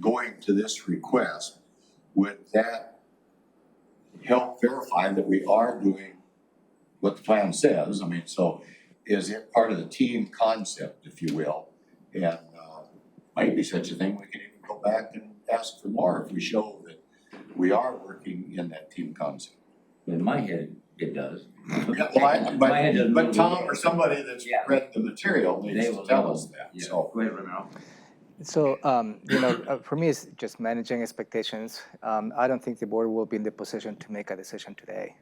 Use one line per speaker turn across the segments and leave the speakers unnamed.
going to this request, would that help verify that we are doing what the plan says? I mean, so is it part of the team concept, if you will? And, uh, might be such a thing, we could even go back and ask for more if we show that we are working in that team concept.
In my head, it does.
Yeah, well, I- but-
My head doesn't
But
really
Tom
work.
or somebody that's
Yeah.
read the material needs
They
to
will
tell
know.
us that,
Yeah,
so.
Oh, go ahead, Romero.
So, um, you know, uh, for me, it's just managing expectations. Um, I don't think the board will be in the position to make a decision today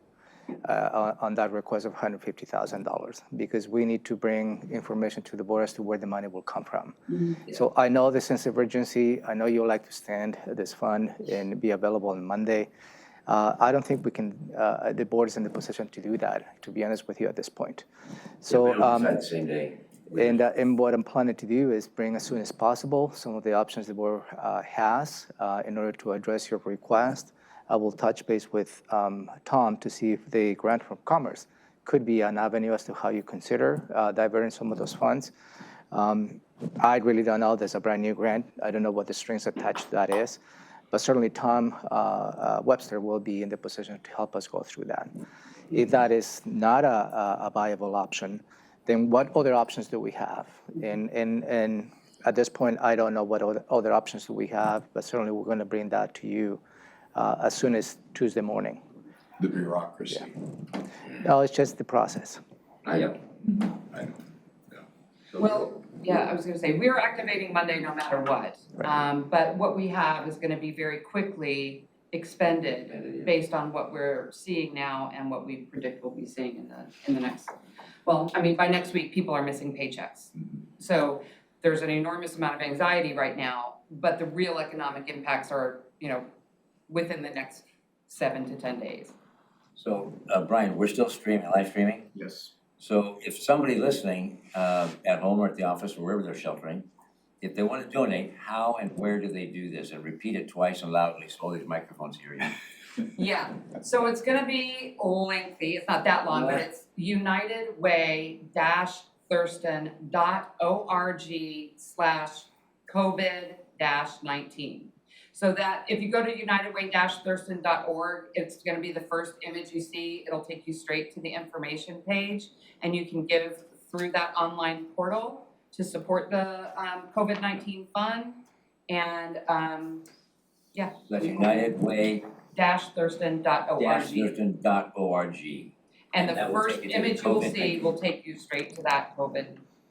uh, on, on that request of $150,000 because we need to bring information to the board as to where the money will come from. So I know the sense of urgency. I know you'd like to stand this fund and be available on Monday. Uh, I don't think we can, uh, the board is in the position to do that, to be honest with you at this point. So, um,
Decide the same day.
and, uh, and what I'm planning to do is bring as soon as possible some of the options the board uh, has uh, in order to address your request. I will touch base with um, Tom to see if the grant from Commerce could be an avenue as to how you consider uh, diverting some of those funds. Um, I really don't know. There's a brand new grant. I don't know what the strings attached to that is. But certainly Tom uh, uh, Webster will be in the position to help us go through that. If that is not a, a a viable option, then what other options do we have? And, and, and at this point, I don't know what other, other options do we have, but certainly we're going to bring that to you uh, as soon as Tuesday morning.
the bureaucracy.
No, it's just the process.
I know.
I know.
Well, yeah, I was gonna say, we're activating Monday no matter what. Um, but what we have is gonna be very quickly
Expended, yeah.
expended based on what we're seeing now and what we predict we'll be seeing in the, in the next. Well, I mean, by next week, people are missing paychecks.
Mm-hmm.
So there's an enormous amount of anxiety right now, but the real economic impacts are, you know, within the next seven to ten days.
So, uh, Brian, we're still streaming, live streaming?
Yes.
So if somebody listening, uh, at home or at the office or wherever they're sheltering, if they wanna donate, how and where do they do this? And repeat it twice and loudly, so all these microphones hear you.
Yeah, so it's gonna be lengthy, it's not that long, but
Right.
it's unitedway-thurston.org slash COVID dash nineteen. So that, if you go to unitedway-thurston.org, it's gonna be the first image you see, it'll take you straight to the information page, and you can give through that online portal to support the, um, COVID nineteen fund, and, um,
That's unitedway-thurston.org.
dash thurston.org. And the
And that will
first
take you to the
image you'll
COVID
see
nineteen.
will take you straight to that COVID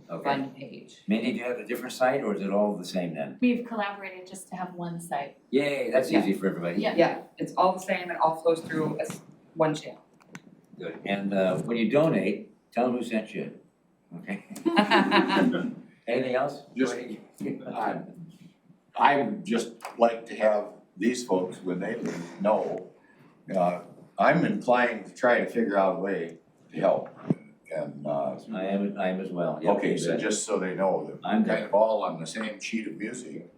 Okay.
fund page.
Mindy, do you have a different site or is it all the same then?
We've collaborated just to have one site.
Yay, that's
Yeah.
easy for everybody.
Yeah.
Yeah, it's all the same, it all flows through as one channel.
Good. And, uh, when you donate, tell them who sent you. Okay? Anything else?
Just- I, I would just like to have these folks, when they leave, know, uh, I'm inclined to try to figure out a way to help. And, uh,
I am, I am as well. Yeah,
okay, so
but-
just so they know that
I'm
I'm
done.
kind of all on the same sheet of music.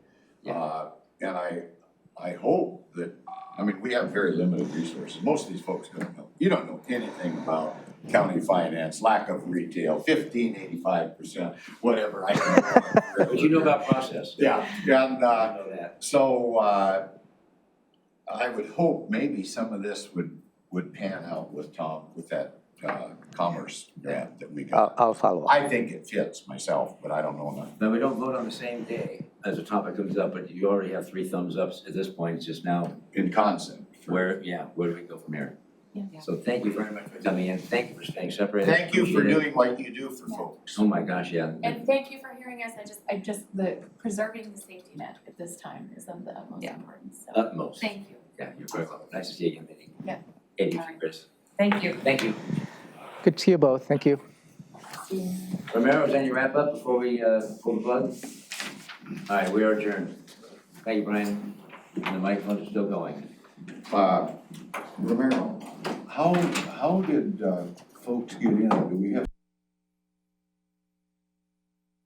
Yeah.
Uh, and I, I hope that, I mean, we have very limited resources. Most of these folks don't know, you don't know anything about county finance, lack of retail, fifteen, eighty-five percent, whatever. I don't
But you know about process.
Yeah, and, uh,
I know that.
so, uh, I would hope maybe some of this would, would pan out with Tom, with that, uh, commerce grant that we
I'll,
got.
I'll
Oh.
follow up.
I think it fits myself, but I don't know enough.
But we don't vote on the same day as a topic comes up, but you already have three thumbs ups at this point. It's just now
in concept. for-
where, yeah, where do we go from here?
Yeah.
So thank you very much for coming in. Thank you for staying separated.
Thank you for
Appreciate it.
doing what you do for folks.
Oh my gosh, yeah.
And thank you for hearing us. I just, I just, the preserving the safety net at this time is of the utmost
Yeah.
importance, so
Utmost.
thank you.
Yeah, you're very welcome. Nice to see you again, Mindy.
Yeah.
Eddie,
All right.
Chris.
Thank you.
Thank you.
Good to see you both. Thank you.
Romero, is there any wrap up before we, uh, pull the plug? All right, we are adjourned. Thank you, Brian. And the microphone is still going.
Uh, Romero, how, how did, uh, folks get in? Do we have